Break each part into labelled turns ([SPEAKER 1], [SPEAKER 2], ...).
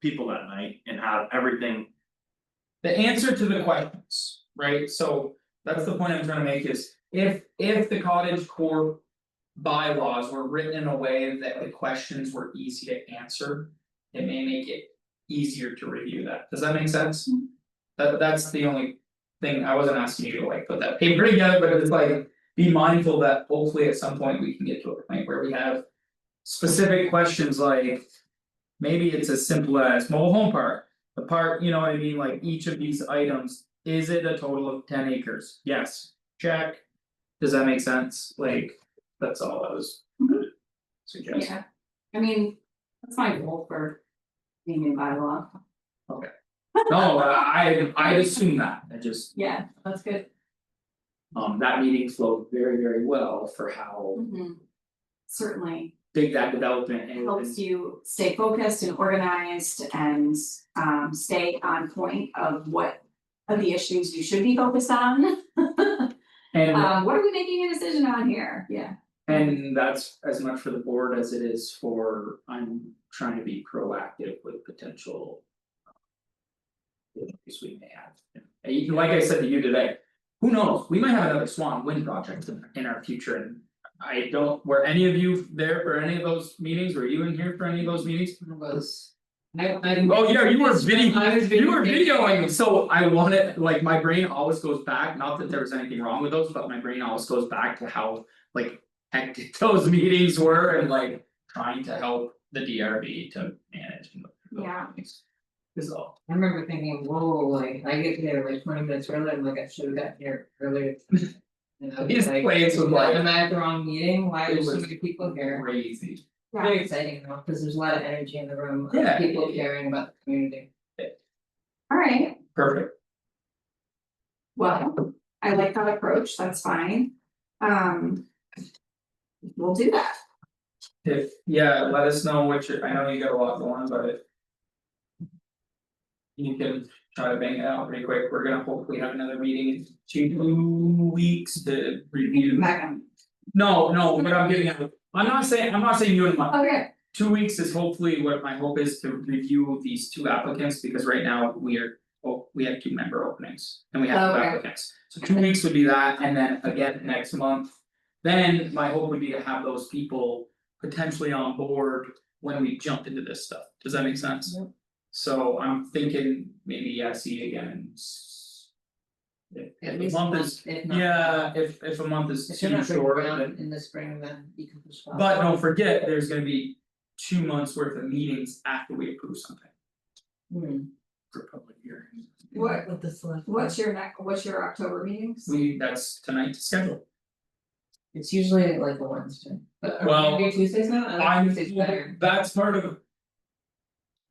[SPEAKER 1] people that night and have everything.
[SPEAKER 2] The answer to the questions, right, so that's the point I'm trying to make is if if the cottage core. Bylaws were written in a way that the questions were easy to answer. It may make it easier to review that, does that make sense? That that's the only thing, I wasn't asking you to like put that paper together, but it's like. Be mindful that hopefully at some point we can get to a point where we have. Specific questions like. Maybe it's as simple as mobile home park, the part, you know what I mean, like each of these items, is it a total of ten acres? Yes, check. Does that make sense? Like, that's all I was.
[SPEAKER 3] Mhm.
[SPEAKER 2] Suggesting,
[SPEAKER 3] Yeah, I mean, that's my goal for being in bylaw,
[SPEAKER 2] no, I I assume that, I just,
[SPEAKER 3] yeah, that's good.
[SPEAKER 2] um that meeting flowed very, very well for how
[SPEAKER 3] Mhm. Certainly
[SPEAKER 2] big that development and
[SPEAKER 3] helps you stay focused and organized and um stay on point of what. Of the issues you should be focused on,
[SPEAKER 2] and
[SPEAKER 3] um what are we making a decision on here, yeah,
[SPEAKER 2] and that's as much for the board as it is for, I'm trying to be proactive with potential. uh, Issues we may have, And you- like I said to you today, who knows, we might have another Swan Wind project in in our future and. I don't, were any of you there for any of those meetings, were you in here for any of those meetings?
[SPEAKER 4] was. I I.
[SPEAKER 2] Oh, yeah, you were video,
[SPEAKER 4] I was
[SPEAKER 2] you were
[SPEAKER 4] videotaping.
[SPEAKER 2] videoing, so I wanted, like, my brain always goes back, not that there was anything wrong with those, but my brain always goes back to how. Like hectic those meetings were and like trying to help the DRB to manage and. those
[SPEAKER 3] Yeah.
[SPEAKER 2] things Is all,
[SPEAKER 4] I remember thinking, whoa, like I get there like twenty minutes early, I'm like, I should have gotten here earlier. You know,
[SPEAKER 2] These
[SPEAKER 4] it's like,
[SPEAKER 2] plays were like-
[SPEAKER 4] Am I at the wrong meeting?
[SPEAKER 2] It
[SPEAKER 4] Why are there so
[SPEAKER 2] was
[SPEAKER 4] many people here?
[SPEAKER 2] crazy,
[SPEAKER 3] yeah,
[SPEAKER 4] Very exciting though, because there's a lot of energy in the room, of
[SPEAKER 2] Yeah.
[SPEAKER 4] people caring about the community.
[SPEAKER 3] alright,
[SPEAKER 2] perfect,
[SPEAKER 3] well, I like that approach, that's fine, um. We'll do that.
[SPEAKER 2] if, yeah, let us know what you, I know you got a lot going, but if. You can try to bang it out pretty quick, we're gonna hopefully have another meeting in two weeks to review.
[SPEAKER 3] Megan,
[SPEAKER 2] No, no, but I'm giving, I'm not saying, I'm not saying you and my,
[SPEAKER 3] okay,
[SPEAKER 2] two weeks is hopefully what my hope is to review these two applicants, because right now we are. Oh, we have two member openings and we
[SPEAKER 4] Oh,
[SPEAKER 2] have two
[SPEAKER 3] Okay.
[SPEAKER 2] applicants, so two weeks would be that, and then again next month. Then my hope would be to have those people potentially on board when we jump into this stuff, does that make sense?
[SPEAKER 4] Yep.
[SPEAKER 2] So I'm thinking maybe I see you again. in s- If if
[SPEAKER 4] At
[SPEAKER 2] a
[SPEAKER 4] least
[SPEAKER 2] month
[SPEAKER 4] once,
[SPEAKER 2] is,
[SPEAKER 4] if not.
[SPEAKER 2] yeah, if if a month is
[SPEAKER 4] If
[SPEAKER 2] too
[SPEAKER 4] you're not
[SPEAKER 2] short, then.
[SPEAKER 4] bringing around in the spring, then you can push off.
[SPEAKER 2] But don't forget, there's gonna be two months worth of meetings after we approve something
[SPEAKER 4] Hmm.
[SPEAKER 2] for public hearings.
[SPEAKER 3] What-
[SPEAKER 4] With the select.
[SPEAKER 3] what's your next, what's your October meetings?
[SPEAKER 2] We, that's tonight's schedule.
[SPEAKER 4] It's usually like a Wednesday, but are
[SPEAKER 2] Well,
[SPEAKER 4] we gonna do Tuesdays now? I
[SPEAKER 2] I'm,
[SPEAKER 4] like Tuesdays better.
[SPEAKER 2] that's part of.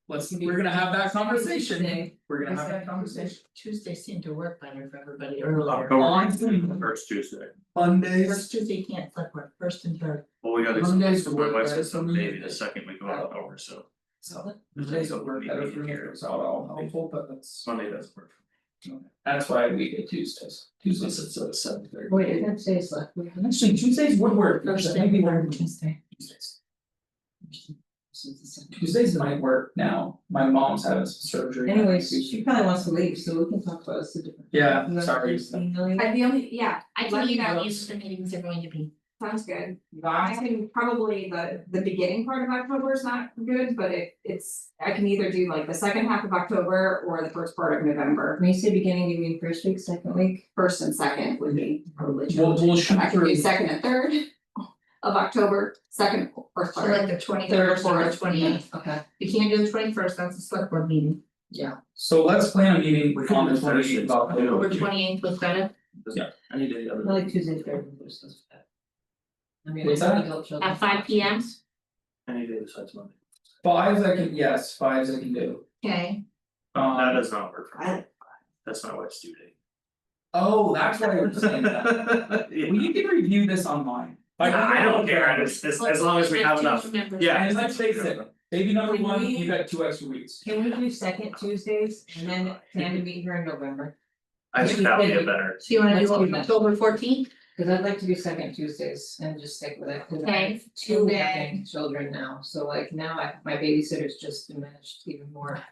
[SPEAKER 2] Let's, we're gonna have that conversation,
[SPEAKER 4] Tuesday.
[SPEAKER 2] we're gonna have that conversation. Oh,
[SPEAKER 4] Tuesday seemed to work better for everybody
[SPEAKER 1] October.
[SPEAKER 4] earlier.
[SPEAKER 2] On
[SPEAKER 1] First Tuesday,
[SPEAKER 2] Mondays,
[SPEAKER 4] First Tuesday can't flip work, first and third.
[SPEAKER 1] well, we got
[SPEAKER 2] Mondays work better for me.
[SPEAKER 1] maybe the second we go out over, so
[SPEAKER 4] So
[SPEAKER 2] Mondays will work better for me, it's all all helpful, but that's,
[SPEAKER 1] Sunday doesn't work.
[SPEAKER 2] that's why we get Tuesdays, Tuesdays it's at seven thirty.
[SPEAKER 4] wait, I didn't say select.
[SPEAKER 2] Actually, Tuesdays would work, because I
[SPEAKER 4] Thursday,
[SPEAKER 2] think we
[SPEAKER 4] Wednesday,
[SPEAKER 2] work
[SPEAKER 4] Tuesday.
[SPEAKER 2] Tuesdays.
[SPEAKER 4] This is the second.
[SPEAKER 2] Tuesdays might work now, my mom's having some surgery.
[SPEAKER 4] Anyways, she probably wants to leave, so we can talk about this a different.
[SPEAKER 2] Yeah,
[SPEAKER 4] You want
[SPEAKER 2] sorry.
[SPEAKER 4] to leave, Lily?
[SPEAKER 3] I the only, yeah,
[SPEAKER 5] I
[SPEAKER 3] Let
[SPEAKER 5] can
[SPEAKER 3] me know.
[SPEAKER 5] email you what the meetings are going to be.
[SPEAKER 3] sounds good. I can probably, the the beginning part of October is not good, but it it's, I can either do like the second half of October or the first part of November.
[SPEAKER 4] When you say beginning, you mean first week, second week?
[SPEAKER 3] First and second would be probably
[SPEAKER 2] We'll
[SPEAKER 3] challenging,
[SPEAKER 2] we'll
[SPEAKER 3] but
[SPEAKER 2] shoot
[SPEAKER 3] I can
[SPEAKER 2] for,
[SPEAKER 3] do second and third of October, second or
[SPEAKER 5] So
[SPEAKER 3] third.
[SPEAKER 5] like the twenty first or the twenty eighth.
[SPEAKER 4] Okay,
[SPEAKER 5] You can't do the twenty first, that's a select board meeting.
[SPEAKER 4] yeah.
[SPEAKER 2] so let's plan a meeting
[SPEAKER 1] We can
[SPEAKER 2] on the
[SPEAKER 1] do
[SPEAKER 2] twenty
[SPEAKER 1] Thursdays.
[SPEAKER 2] eighth of October.
[SPEAKER 5] Or twenty eighth was better,
[SPEAKER 1] Any day
[SPEAKER 4] I
[SPEAKER 1] other.
[SPEAKER 4] like Tuesday, third, and first, that's bad. I mean,
[SPEAKER 2] What's
[SPEAKER 4] I
[SPEAKER 2] that?
[SPEAKER 4] think it'll show
[SPEAKER 5] at five P M,
[SPEAKER 1] Any day besides Monday.
[SPEAKER 2] Fives I can, yes, fives I can do.
[SPEAKER 5] okay,
[SPEAKER 1] That
[SPEAKER 2] Um,
[SPEAKER 1] does not work for me, that's my wife's due date.
[SPEAKER 2] oh, that's why you're saying that,
[SPEAKER 1] Yeah.
[SPEAKER 2] well, you can review this online. Like,
[SPEAKER 1] I don't care, I just- as as long as we have enough, yeah.
[SPEAKER 2] And let's face it, baby number
[SPEAKER 4] Can
[SPEAKER 2] one,
[SPEAKER 4] we-
[SPEAKER 2] you got two extra weeks.
[SPEAKER 4] Can we do second Tuesdays and then plan to meet here in November?
[SPEAKER 1] I think that would be a better,
[SPEAKER 5] So you wanna
[SPEAKER 4] Let's
[SPEAKER 5] do
[SPEAKER 4] do that.
[SPEAKER 5] October fourteenth?
[SPEAKER 4] Cause I'd like to do second Tuesdays and just stick with it, cause I
[SPEAKER 5] Okay,
[SPEAKER 4] have two
[SPEAKER 5] two day.
[SPEAKER 4] working children now, so like now I, my babysitter's just diminished even more.